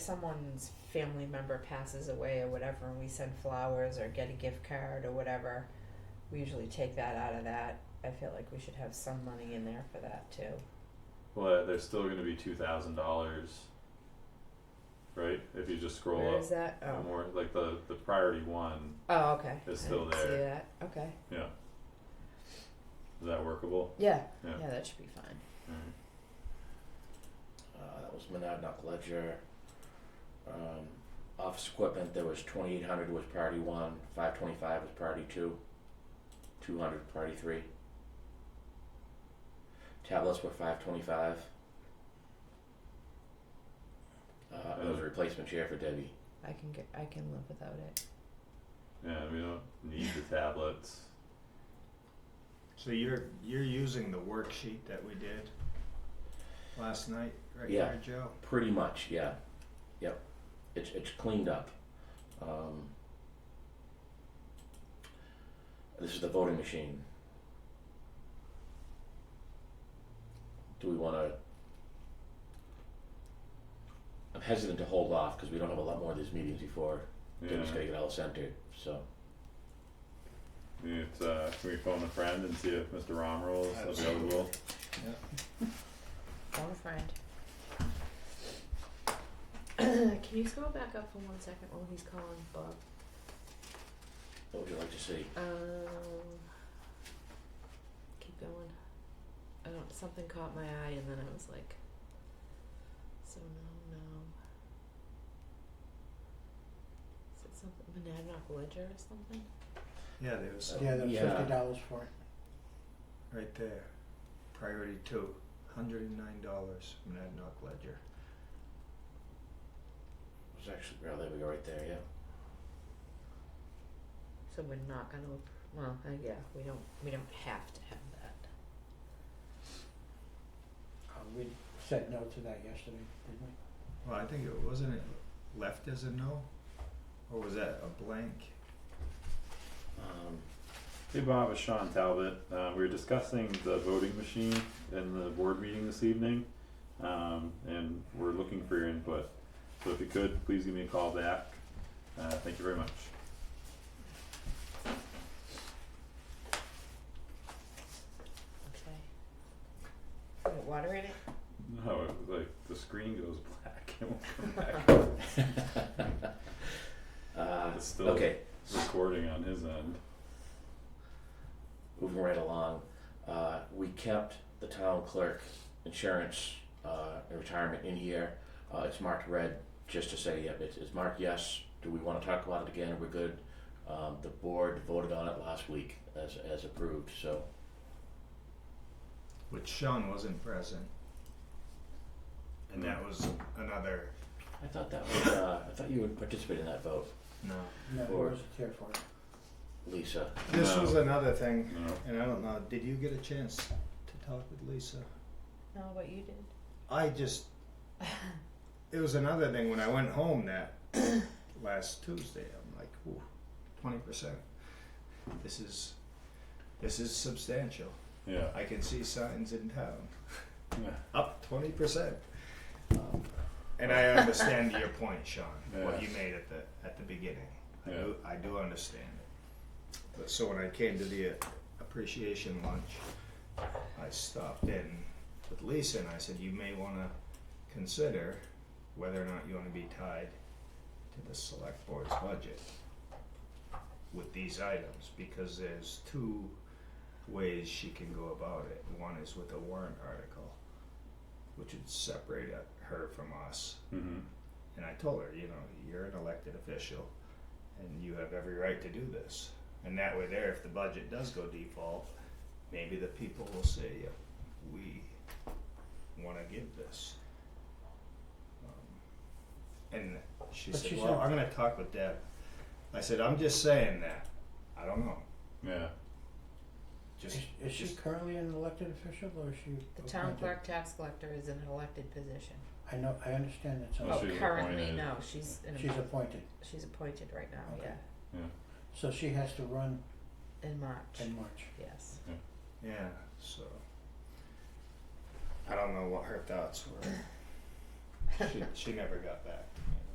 someone's family member passes away or whatever and we send flowers or get a gift card or whatever, we usually take that out of that. I feel like we should have some money in there for that too. Well, there's still gonna be two thousand dollars. Right, if you just scroll Where up is that? and Oh, more, like the the priority one, oh okay. It's I still didn't See there. that? Okay. is that workable? Yeah. Yeah. Yeah, that should be fine. Alright. Uh, that was Monadnock Ledger. Um, office equipment, there was twenty-eight hundred was priority one, five twenty-five was priority two, two hundred priority three. Tablets were five twenty-five. Uh, it was a replacement chair for Debbie. I can get I can live without it. Yeah, we don't need the tablets. So you're you're using the worksheet that we did last night, right Yeah. there, Joe? Pretty much, yeah. Yep. It's it's cleaned up. Um, this is the voting machine. Do we want to? I'm hesitant to hold off because we don't have a lot more of these meetings before. Yeah, Debbie's gotta get all centered, so I mean, it's, uh, can we phone a friend and see if Mr. Romerl is Absolutely. available? Phone a friend. can you scroll back up for one second while he's calling Bob? what would you like to see? Um, keep going. I don't. Something caught my eye, and then I was like, "So no, no." Is it something Monadnock Ledger or something? Yeah, there was some Yeah, they're Yeah. fifty dollars for it. right there. Priority two, hundred and nine dollars from Monadnock Ledger. It's actually well, there we go, right there. Yeah. So we're not gonna. appro- Well, uh, yeah, we don't. We don't have to have that. Uh, we said no to that yesterday, didn't we? Well, I think it wasn't it left as a no, or was that a blank? Um, Hey Bob, it's Sean Talbot. Uh, we were discussing the voting machine in the board meeting this evening, um, and we're looking for your input. So if you could, please give me a call back. Uh, thank you very much. Okay. Is it water in it? No, it, like the screen goes black and won't come back. Um, uh, It's still okay. recording on his end. moving right along, uh, we kept the town clerk insurance, uh, and retirement in here. Uh, it's marked red, just to say, yep, it's, it's marked yes, do we wanna talk about it again, we're good. Um, the board voted on it last week as, as approved, so, Which Sean wasn't present. And that was another I thought that was, uh, I thought you would participate in that vote, no. No, there Or- was a tier for it. Lisa. This No. was another thing, No. and I don't know. Did you get a chance to talk with Lisa? No, but you did. I just it was another thing when I went home that last Tuesday. I'm like, ooh, twenty percent. This is this is substantial. Yeah. I can see signs in town Yeah. up twenty percent. Um, and I understand your point, Sean. What Yeah. you made at the at the beginning. I Yeah. do I do understand it. But so when I came to the uh, appreciation lunch, I stopped in with Lisa and I said, you may want to consider whether or not you want to be tied to the select board's budget with these items because there's two ways she can go about it. One is with a warrant article, which would separate uh, her from us. Mm-hmm. And I told her, you know, you're an elected official and you have every right to do this. And that way there, if the budget does go default, maybe the people will say, yep, we wanna give this. Um, And she But said, she well, said- I'm gonna talk with Deb. I said, I'm just saying that, I don't know, Yeah. just, Is, is she just- currently an elected official or is she? The town appointed? clerk tax collector is in an elected position. I know, I understand that, Well, so Oh, she's currently, appointed. no, she's in she's appointed, she's appointed right now, Okay. yeah, so she has to run in March, in March. yes. yeah, so. I don't know what her thoughts were, she, she never got back